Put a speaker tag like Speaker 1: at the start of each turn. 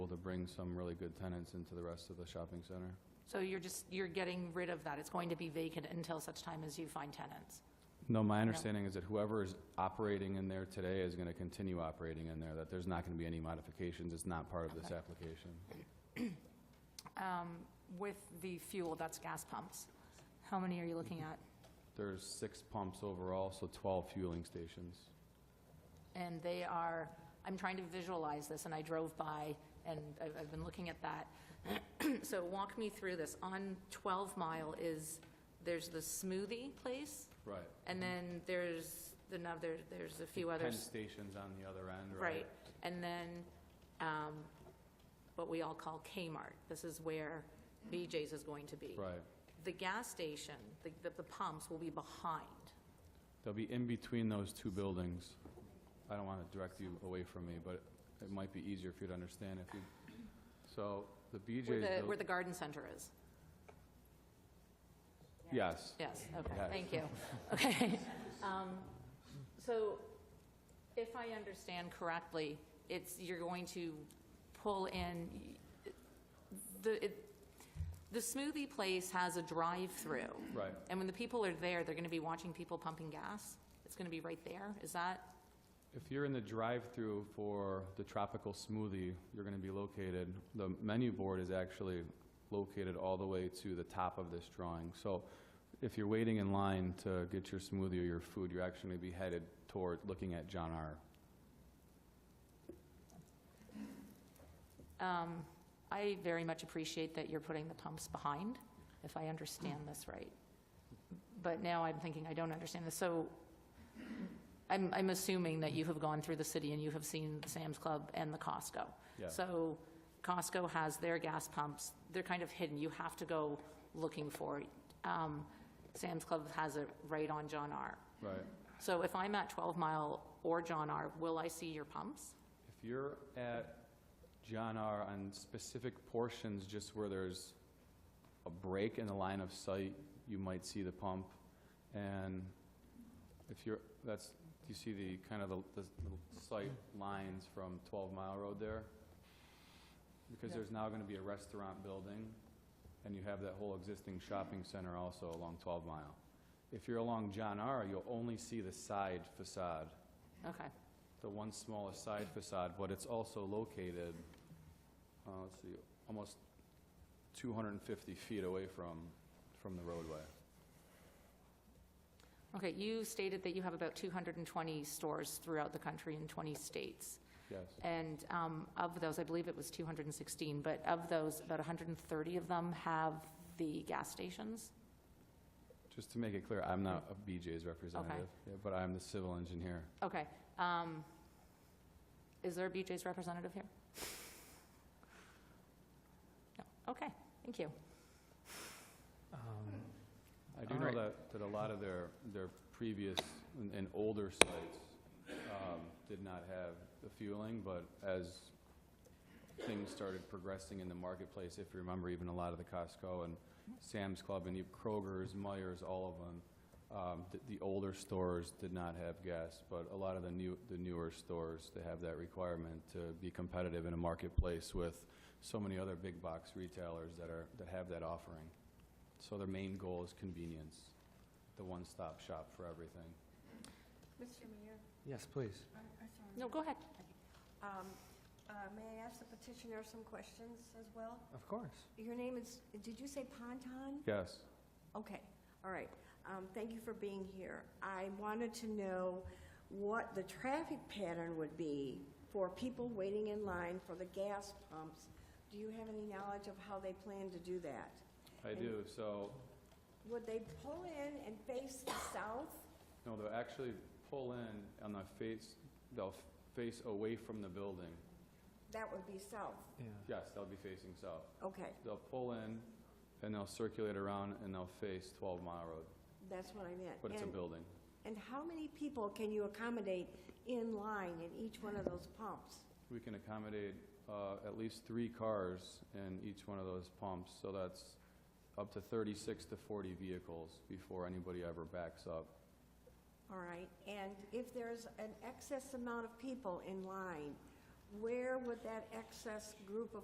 Speaker 1: bring some really good tenants into the rest of the shopping center.
Speaker 2: So you're just, you're getting rid of that. It's going to be vacant until such time as you find tenants.
Speaker 1: No, my understanding is that whoever is operating in there today is going to continue operating in there, that there's not going to be any modifications. It's not part of this application.
Speaker 2: Um, With the fuel, that's gas pumps. How many are you looking at?
Speaker 1: There's six pumps overall, so 12 fueling stations.
Speaker 2: And they are, I'm trying to visualize this, and I drove by, and I've, I've been looking at that. So walk me through this. On 12 Mile is, there's the smoothie place,
Speaker 1: Right.
Speaker 2: and then there's another, there's a few
Speaker 1: 10
Speaker 2: others.
Speaker 1: stations on the other end, right?
Speaker 2: Right, and then, um, what we all call Kmart, this is where BJ's is going to be.
Speaker 1: Right.
Speaker 2: The gas station, the, the- the pumps will be behind.
Speaker 1: They'll be in between those two buildings. I don't want to direct you away from me, but it might be easier for you to understand if you, so the BJ's.
Speaker 2: Where the,
Speaker 1: buil-
Speaker 2: where the garden center is.
Speaker 1: Yes,
Speaker 2: Yes, okay,
Speaker 1: Yes.
Speaker 2: thank you. Okay. Um, So if I understand correctly, it's, you're going to pull in, the, it- the smoothie place has a drive-through.
Speaker 1: right.
Speaker 2: And when the people are there, they're going to be watching people pumping gas? It's going to be right there? Is that,
Speaker 1: If you're in the drive-through for the tropical smoothie, you're going to be located, the menu board is actually located all the way to the top of this drawing. So if you're waiting in line to get your smoothie or your food, you're actually going to be headed toward, looking at John R.
Speaker 2: um, I very much appreciate that you're putting the pumps behind, if I understand this right. But now I'm thinking I don't understand this. So I'm, I'm assuming that you have gone through the city and you have seen Sam's Club and the Costco.
Speaker 1: Yeah.
Speaker 2: So Costco has their gas pumps, they're kind of hidden, you have to go looking for it. Um, Sam's Club has it right on John R.
Speaker 1: Right.
Speaker 2: So if I'm at 12 Mile or John R., will I see your pumps?
Speaker 1: If you're at John R. on specific portions, just where there's a break in the line of sight, you might see the pump. And if you're, that's, do you see the, kind of the, the little sight lines from 12 Mile Road there? Because
Speaker 2: Yeah.
Speaker 1: there's now gonna be a restaurant building, and you have that whole existing shopping center also along 12 Mile. If you're along John R., you'll only see the side facade
Speaker 2: Okay.
Speaker 1: the one smallest side facade, but it's also located, uh, let's see, almost 250 feet away from, from the roadway.
Speaker 2: Okay, you stated that you have about 220 stores throughout the country in 20 states.
Speaker 1: Yes.
Speaker 2: And um, of those, I believe it was 216, but of those, about 130 of them have the gas stations?
Speaker 1: Just to make it clear, I'm not a BJ's representative, yeah, but I'm the civil engineer.
Speaker 2: Okay. um, Is there a BJ's representative here? No. Okay, thank you.
Speaker 3: Um,
Speaker 1: I do
Speaker 3: All
Speaker 1: know
Speaker 3: right.
Speaker 1: that, that a lot of their, their previous and- and older sites um, did not have the fueling, but as things started progressing in the marketplace, if you remember, even a lot of the Costco and Sam's Club and even Kroger's, Meyer's, all of them, um, th- the older stores did not have gas, but a lot of the new, the newer stores, they have that requirement to be competitive in a marketplace with so many other big box retailers that are, that have that offering. So their main goal is convenience, the one-stop shop for everything.
Speaker 4: Mr. Mayor,
Speaker 3: Yes, please.
Speaker 4: I'm I'm sorry.
Speaker 2: No, go ahead.
Speaker 4: Um, uh, May I ask the petitioner some questions as well?
Speaker 3: Of course.
Speaker 4: Your name is, did you say Ponton?
Speaker 1: Yes.
Speaker 4: Okay, all right. Um, Thank you for being here. I wanted to know what the traffic pattern would be for people waiting in line for the gas pumps. Do you have any knowledge of how they plan to do that?
Speaker 1: I do, so,
Speaker 4: Would they pull in and face south?
Speaker 1: no, they'll actually pull in on the face, they'll face away from the building.
Speaker 4: That would be south,
Speaker 3: Yeah.
Speaker 1: Yes, they'll be facing south.
Speaker 4: okay.
Speaker 1: They'll pull in, and they'll circulate around, and they'll face 12 Mile Road,
Speaker 4: That's what I meant.
Speaker 1: but it's a
Speaker 4: And-
Speaker 1: building.
Speaker 4: And how many people can you accommodate in line in each one of those pumps?
Speaker 1: We can accommodate uh, at least three cars in each one of those pumps, so that's up to 36 to 40 vehicles before anybody ever backs up.
Speaker 4: All right, and if there's an excess amount of people in line, where would that excess group of